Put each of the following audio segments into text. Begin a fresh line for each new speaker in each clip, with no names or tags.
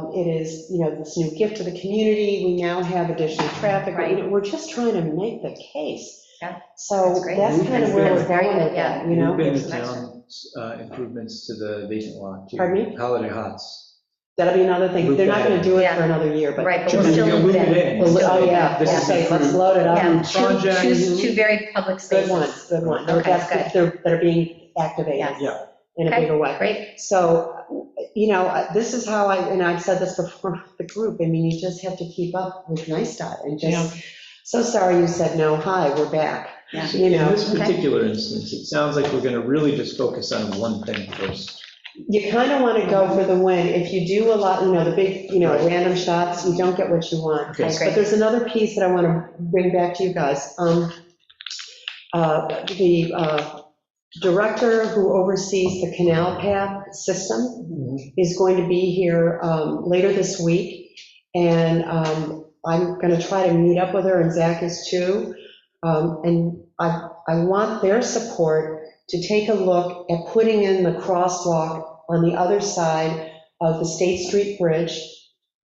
um, it is, you know, this new gift to the community, we now have additional traffic, you know, we're just trying to make the case.
Yeah,
So
that's great.
that's kind of where
That's
we're
very
going
good,
with that,
yeah.
you know?
We've
Nice.
been town's uh, improvements to the vacant lot. too.
Pardon me?
Holiday Hots.
That'll be another thing,
Loop
they're not
that in.
gonna do it for
Yeah.
another year, but.
Right, but
Sure,
we're
you
still
can loop it
moving.
in.
Well, lo- Oh, yeah,
This
yeah,
is
say, let's
approved.
load it
Yeah,
up.
two,
project.
two, two very public
Good
spaces.
ones, good ones,
Okay,
that's,
good.
they're, they're being activated
Yes.
Yeah.
in a
Okay,
bigger way.
Great,
So, you know, uh, this is how I, and I've said this before with the group, I mean, you just have to keep up with NICEDOT and just, so sorry you said no, hi, we're back.
Yeah.
You
In
know,
this
okay.
particular instance, it sounds like we're going to really just focus on one thing first.
you kind of want to go for the win. If you do a lot, you know, the big, you know,
Right.
random shots, you don't get what you want.
Okay.
I agree.
But there's another piece that I want to bring back to you guys. Um, uh, The uh, director who oversees the canal path system, is going to be here um, later this week, and um, I'm going to try to meet up with her, and Zach is too. Um, And I, I want their support to take a look at putting in the crosswalk on the other side of the State Street Bridge,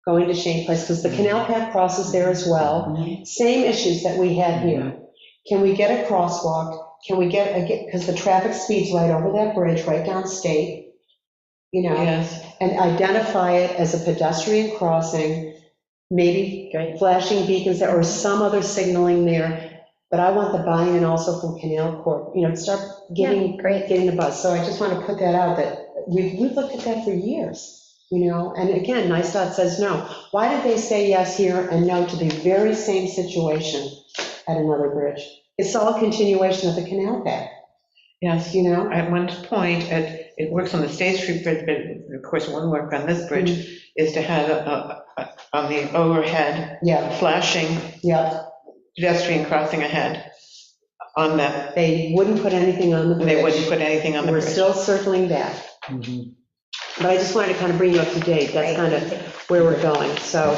going to Shane Place, because the canal path crosses there as well. Same issues that we had here.
Mm-hmm.
Can we get a crosswalk? Can we get, because the traffic speeds right over that bridge, right down State, you know?
Yes,
and identify it as a pedestrian crossing, maybe
Great.
flashing beacons there or some other signaling there. But I want the buy-in also from Canal Corp, you know, start
yeah,
getting,
great.
getting the buzz. So I just want to put that out, that we've, we've looked at that for years, you know? And again, NICEDOT says no. Why did they say yes here and no to the very same situation at another bridge? It's all a continuation of the canal path,
yes.
you know?
At one point, it, it works on the State Street Bridge, but of course, it wouldn't work on this
Mm.
bridge, is to have a- a, a- on the overhead,
Yeah,
flashing
yeah.
pedestrian crossing ahead on that,
They wouldn't put anything on the bridge.
they wouldn't put anything on the
We're
bridge.
still circling back,
Mhm.
but I just wanted to kind of bring you up to date. That's kind of where we're going. So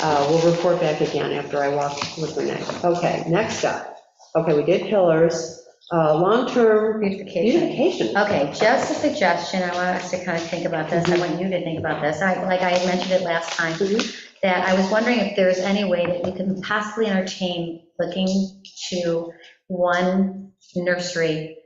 uh, we'll report back again after I walk with the next. Okay, next up. Okay, we did pillars, Uh, long-term
Beautification.
beautification.
Okay, just a suggestion, I want us to kind of think about this, I want you to think about this, I, like I had mentioned it last time,
Mhm.
that I was wondering if there's any way that we could possibly entertain looking to one nursery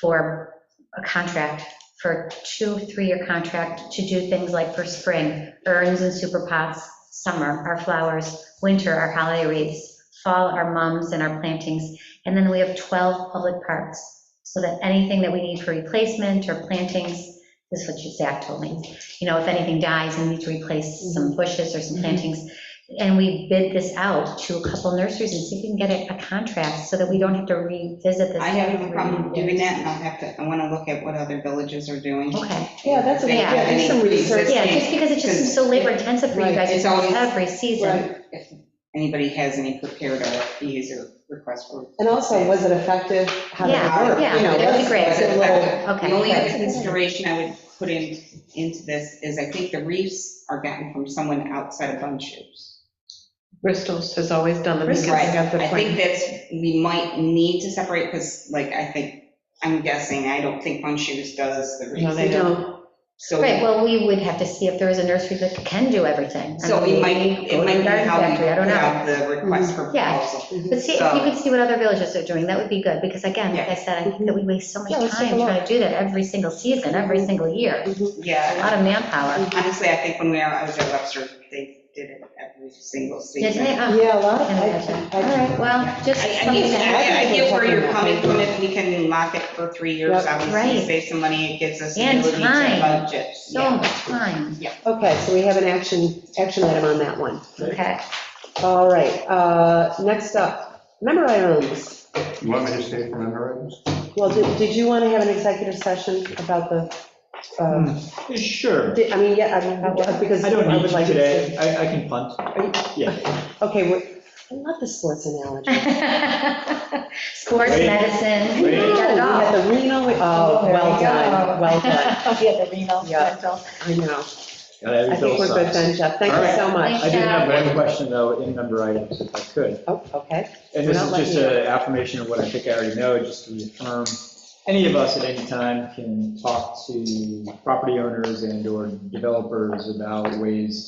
for a contract, for two, three-year contract to do things like for spring, urns and super pots, summer, our flowers, winter, our holiday wreaths, fall, our mums and our plantings. And then we have 12 public parks, so that anything that we need for replacement or plantings, this is what Zach told me, you know, if anything dies and needs to replace
Mm-hmm.
some bushes or some
Mhm.
plantings. And we bid this out to a couple nurseries and see if we can get a- a contract so that we don't have to revisit this.
I have no
every
problem
year.
doing that, and I'll have to, I want to look at what other villages are doing.
Okay,
Yeah, that's a,
They
Yeah,
have
yeah, do some
any
research.
yeah,
existing-
just because it just seems so labor intensive for you
Right,
guys,
it's
it's almost
always-
every season.
Right.
If anybody has any prepared RFPs or requests for.
And also, was it effective? How did
Yeah,
it work?
yeah,
You know,
that'd be
let's-
great.
let's get a little-
Okay.
The only other
great.
consideration I would put in, into this is I think the reefs are gotten from someone outside of Bun Shoes.
Bristol's has always done them. because they
Right.
got the
I think
point.
that's, we might need to separate, because like, I think, I'm guessing, I don't think Bun Shoes does the
No,
reefs.
they
You
don't.
know,
So
Right, well, we would have to see if there is a nursery that can do everything. I
So
mean,
we might,
go
it
to
might
the
be
garden
how we
factory, I don't
put
know. Mm-hmm.
out the request for
Yeah.
proposal.
But see, if you
So-
could see what other villages are doing, that would be good, because again, like I said, I think that we waste so much
Yeah, let's take a
time trying to do that every single season, every single year. A
Yeah,
lot of manpower.
honestly, I think when we, I was at Webster, they did it every single
Didn't
season.
they?
I,
Oh,
Yeah, a lot of.
I
I-
imagine. All
I-
right, well, just
I
something
mean,
that,
I I get where you're
Yeah.
coming from, if we can lock it for three years,
Yeah.
obviously,
Right.
save some money, it gives us the
And
ability to
time.
budget.
so
Yeah.
much time.
Okay, so we have an action, action item on that one.
Okay,
All right, uh, next up, member items.
You want me to stay for member items?
Well, did, did you want to have an executive session about the, um,
Sure.
di- I mean, yeah, I mean, because
I
I
don't
would
need
like. to-
today. I, I can punt. Yeah.
Okay, we're- I love the sports analogy.
Sports,
Wait.
medicine, we
Wait.
got it all.
We had the Reno, we- oh,
There we
well done,
go.
well done.
We had the renal,
Yeah.
mental.
I know.
Got every
I think we're good
Phillips size.
then, Jeff. Thank you so much.
I did have one question though, in member items, if I could.
Oh, okay.
And this
Without
is just
letting
an affirmation of what I think I already know, just to reaffirm, any of us at any time can talk to property owners and/or developers about ways